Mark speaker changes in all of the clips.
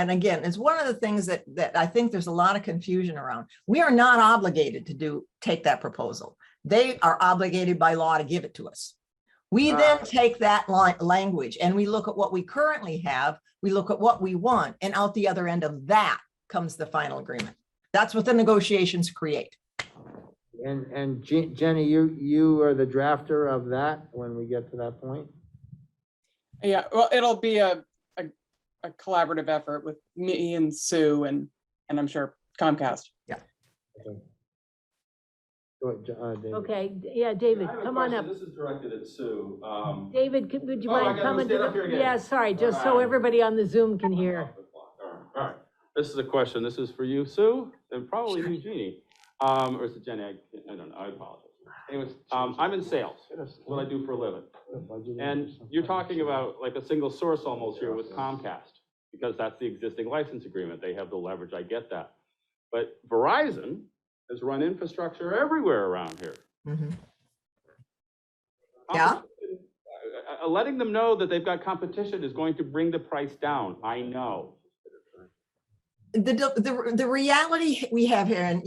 Speaker 1: and again, it's one of the things that, that I think there's a lot of confusion around. We are not obligated to do, take that proposal. They are obligated by law to give it to us. We then
Speaker 2: Ah.
Speaker 1: take that li- language and we look at what we currently have, we look at what we want, and out the other end of that comes the final agreement. That's what the negotiations create.
Speaker 2: And, and Je- Jenny, you, you are the drafter of that when we get to that point?
Speaker 3: Yeah, well, it'll be a, a, a collaborative effort with me and Sue and, and I'm sure Comcast.
Speaker 2: Okay. Go ahead, Jo- uh, David.
Speaker 4: Okay, d- yeah, David,
Speaker 5: I have a
Speaker 4: come on up.
Speaker 5: question. This is directed at Sue. Um,
Speaker 4: David, could- would you
Speaker 5: Oh, I
Speaker 4: mind
Speaker 5: gotta
Speaker 4: coming to
Speaker 5: stand up here
Speaker 4: the,
Speaker 5: again.
Speaker 4: yeah, sorry, just so
Speaker 5: Alright.
Speaker 4: everybody on the Zoom can hear.
Speaker 5: all right. This is a question. This is for you, Sue, and probably you, Jeannie. Um, or is it Jenny? I, I don't know. I apologize. Anyways, um, I'm in sales. That's what I do for a living. And you're talking about like a single source almost here with Comcast, because that's the existing license agreement. They have the leverage, I get that. But Verizon has run infrastructure everywhere around here.
Speaker 1: Mhm. Yeah.
Speaker 5: Competition- uh, uh, Letting them know that they've got competition is going to bring the price down, I know.
Speaker 1: the, the, the reality we have here, and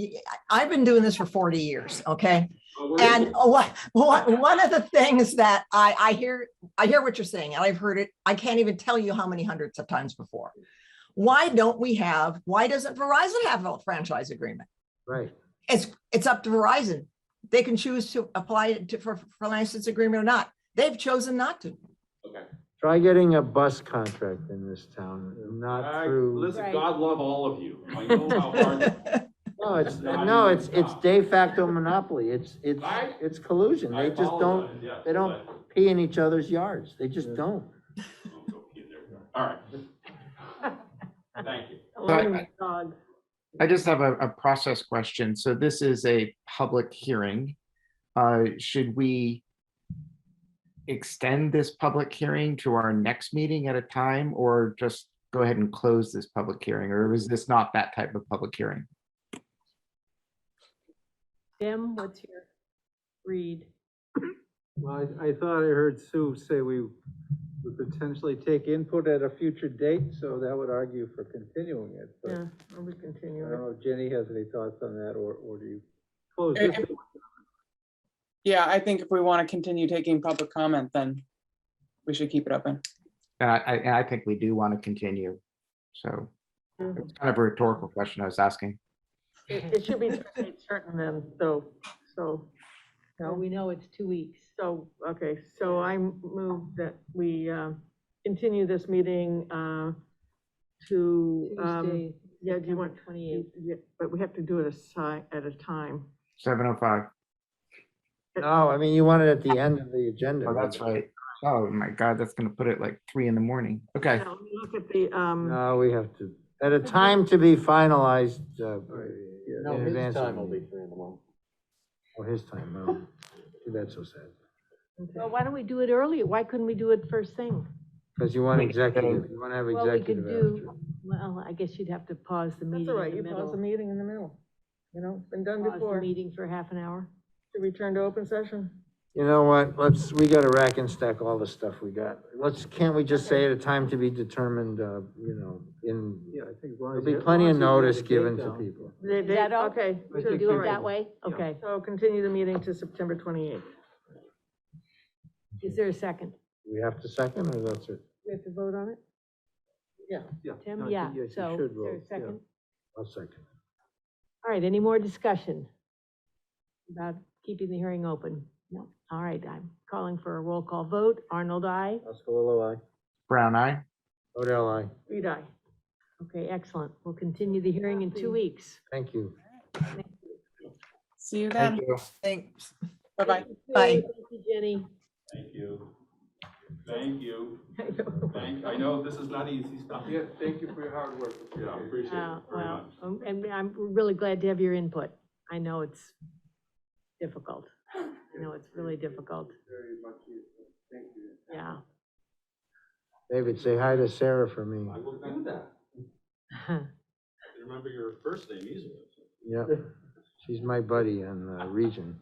Speaker 1: I've been doing this for 40 years, okay?
Speaker 5: But Uh, we're-
Speaker 1: And what, what, one of the things that I, I hear, I hear what you're saying, and I've heard it, I can't even tell you how many hundreds of times before. Why don't we have, why doesn't Verizon have a franchise agreement?
Speaker 2: Right,
Speaker 1: It's, it's up to Verizon. They can choose to apply it to, for, for license agreement or not. They've chosen not to.
Speaker 5: Okay.
Speaker 2: try getting a bus contract in this town, not
Speaker 5: I-
Speaker 2: through,
Speaker 5: Listen,
Speaker 4: Right.
Speaker 5: God love all of you. I know how hard,
Speaker 2: no, it's,
Speaker 5: Not
Speaker 2: no,
Speaker 5: even
Speaker 2: it's, it's
Speaker 5: stop.
Speaker 2: de facto monopoly, it's, it's,
Speaker 5: I-
Speaker 2: it's collusion, they
Speaker 5: I
Speaker 2: just don't
Speaker 5: apologize, yeah.
Speaker 2: they don't- pee in each other's yards, they just don't.
Speaker 5: but- Don't go pee there. All right. Thank you.
Speaker 4: Owner's dog.
Speaker 6: I just have a, a process question. So this is a public hearing. Uh, should we extend this public hearing to our next meeting at a time or just go ahead and close this public hearing? Or was this not that type of public hearing?
Speaker 4: Jim, what's your read?
Speaker 7: Well, I, I thought I heard Sue say we would potentially take input at a future date, so that would argue for continuing it. but
Speaker 4: Yeah, are we
Speaker 7: I don't
Speaker 4: continuing?
Speaker 7: know if Jenny has any thoughts on that, or, or do you close
Speaker 3: Eh,
Speaker 7: this?
Speaker 3: eh.
Speaker 2: Uh,
Speaker 3: Yeah, I think if we want to continue taking public comment, then we should keep it open.
Speaker 6: And I, I, and I think we do want to continue. So it's kind of a rhetorical question I was asking.
Speaker 4: It should be certain then, though, so. we know it's two weeks. So, okay, so I move that we uh, continue this meeting uh, to. um,
Speaker 8: Tuesday,
Speaker 4: Yeah, do you want?
Speaker 8: twenty-eighth.
Speaker 4: Yeah, But we have to do it a si- at a time.
Speaker 6: Seven oh five.
Speaker 2: uh, No, I mean, you want it at the end of the agenda.
Speaker 6: Oh, that's right. Oh my God, that's gonna put it like three in the morning. Okay.
Speaker 4: Now, Look at the, um,
Speaker 2: No, we have to, at a time to be finalized, uh,
Speaker 7: No,
Speaker 2: in
Speaker 7: his
Speaker 2: advance of
Speaker 7: time
Speaker 2: the
Speaker 7: will be
Speaker 2: meeting. Oh, his time, no. See, That's so sad.
Speaker 4: well, why don't we do it earlier? Why couldn't we do it first thing?
Speaker 2: Because you want
Speaker 6: Wait,
Speaker 2: executive, you want to have
Speaker 8: Well, we
Speaker 2: executive
Speaker 8: could
Speaker 2: after.
Speaker 8: do, well, I guess you'd have to pause the meeting
Speaker 4: That's all right, you
Speaker 8: in the
Speaker 4: pause the
Speaker 8: middle.
Speaker 4: meeting in the middle. You know, it's been done
Speaker 8: Pause the
Speaker 4: before, to
Speaker 8: meeting for half an hour.
Speaker 4: return to open session.
Speaker 2: You know what, let's, we gotta rack and stack all the stuff we got. Let's, can't we just say at a time to be determined, uh, you know, in,
Speaker 7: Yeah, I think. as long as
Speaker 2: there'll
Speaker 7: you-
Speaker 2: be
Speaker 7: as
Speaker 2: plenty
Speaker 7: long
Speaker 2: of
Speaker 7: as you get the
Speaker 2: notice
Speaker 7: date
Speaker 2: given to
Speaker 7: down.
Speaker 2: people.
Speaker 4: They,
Speaker 8: Is
Speaker 4: they,
Speaker 8: that all?
Speaker 4: okay.
Speaker 7: I
Speaker 4: so
Speaker 7: think
Speaker 4: do
Speaker 8: Do
Speaker 4: it
Speaker 8: it
Speaker 4: right.
Speaker 8: that way? Okay.
Speaker 4: So continue the meeting to September twenty-eighth.
Speaker 8: Is there a second?
Speaker 2: We have to second, or that's it?
Speaker 8: We have to vote on it?
Speaker 7: Yeah. no,
Speaker 8: Tim,
Speaker 7: I
Speaker 8: yeah,
Speaker 7: think, yes, you
Speaker 8: so, is
Speaker 7: should
Speaker 8: there a
Speaker 7: vote, yeah.
Speaker 8: second?
Speaker 2: I'll second.
Speaker 8: All right, any more discussion? About keeping the hearing open? No. All right, I'm calling for a roll call vote. Arnold, I.
Speaker 2: Oscalillo, aye.
Speaker 6: Brown eye.
Speaker 2: Odell, aye.
Speaker 4: Reed, aye.
Speaker 8: Okay, excellent. We'll continue the hearing in two weeks.
Speaker 2: Thank you.
Speaker 3: See you
Speaker 6: Thank
Speaker 3: then.
Speaker 6: you.
Speaker 1: Thanks.
Speaker 3: Bye-bye.
Speaker 1: Bye.
Speaker 8: Thank you, Jenny.
Speaker 5: Thank you. Thank you. Thank, I know this is not easy stuff. Yeah, thank you for your hard work. Yeah, appreciate
Speaker 8: Uh,
Speaker 5: it very
Speaker 8: Well,
Speaker 5: much.
Speaker 8: um, and I'm really glad to have your input. I know it's difficult. I know it's really difficult.
Speaker 7: Very much, useful. thank you.
Speaker 8: Yeah.
Speaker 2: David, say hi to Sarah for me.
Speaker 5: I will do that. Remember your first name easily.
Speaker 2: Yep. She's my buddy in the region.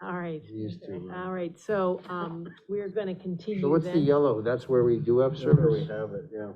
Speaker 8: All right.
Speaker 2: She used to. uh,
Speaker 8: All right. So um, we're going to continue
Speaker 2: So what's the
Speaker 8: then.
Speaker 2: yellow? That's where we do have service?
Speaker 7: have it, yeah.